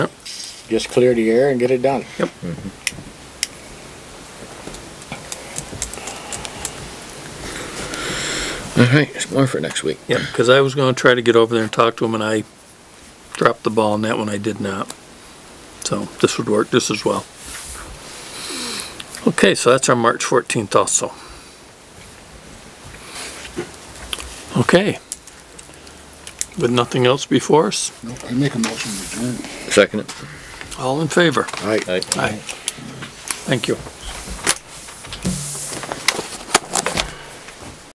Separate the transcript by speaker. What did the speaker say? Speaker 1: Yep.
Speaker 2: Just clear the air and get it done.
Speaker 1: Yep.
Speaker 3: All right, it's more for next week.
Speaker 1: Yeah, because I was gonna try to get over there and talk to him, and I dropped the ball on that one, I did not. So this would work just as well. Okay, so that's our March fourteenth also. Okay. With nothing else before us,
Speaker 4: Nope, I make a motion to adjourn.
Speaker 3: Second it.
Speaker 1: all in favor?
Speaker 3: All right.
Speaker 1: Aye. Thank you.